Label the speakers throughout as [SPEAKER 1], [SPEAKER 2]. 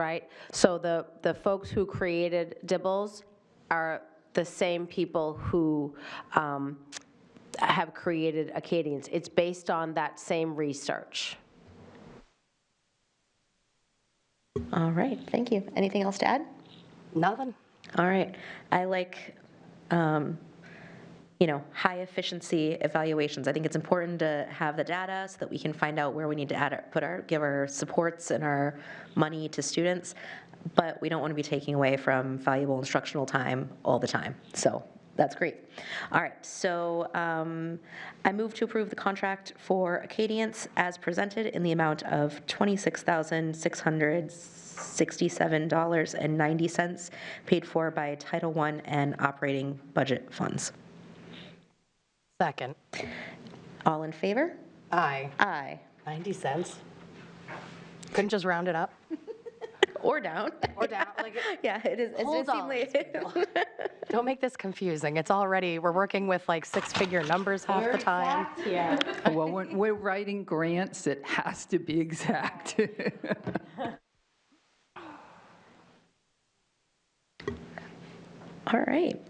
[SPEAKER 1] Right, so the, the folks who created Dibbles are the same people who um, have created Acadians. It's based on that same research.
[SPEAKER 2] All right, thank you. Anything else to add?
[SPEAKER 3] Nothing.
[SPEAKER 2] All right, I like, um, you know, high efficiency evaluations. I think it's important to have the data so that we can find out where we need to add, our- put our, give our supports and our money to students. But we don't want to be taking away from valuable instructional time all the time. So that's great. All right, so um, I move to approve the contract for Acadience as presented in the amount of $26,667.90 paid for by Title I and operating budget funds.
[SPEAKER 3] Second.
[SPEAKER 2] All in favor?
[SPEAKER 3] Aye.
[SPEAKER 2] Aye.
[SPEAKER 3] 90 cents. Couldn't just round it up?
[SPEAKER 2] Or down.
[SPEAKER 3] Or down, like,
[SPEAKER 2] Yeah, it is, it
[SPEAKER 3] Whole
[SPEAKER 2] does seem like.
[SPEAKER 3] don't make this confusing. It's already, we're working with like six-figure numbers half the time.
[SPEAKER 4] Well, when we're writing grants, it has to be exact.
[SPEAKER 2] All right.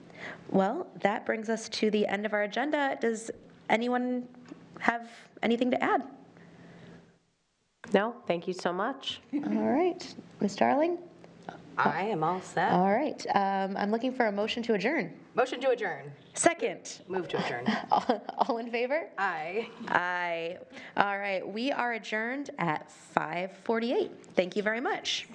[SPEAKER 2] Well, that brings us to the end of our agenda. Does anyone have anything to add?
[SPEAKER 1] No, thank you so much.
[SPEAKER 2] All right, Ms. Darling?
[SPEAKER 3] I am all set.
[SPEAKER 2] All right, um, I'm looking for a motion to adjourn.
[SPEAKER 3] Motion to adjourn.
[SPEAKER 2] Second.
[SPEAKER 3] Move to adjourn.
[SPEAKER 2] All all in favor?
[SPEAKER 3] Aye.
[SPEAKER 2] Aye. All right, we are adjourned at 5:48. Thank you very much.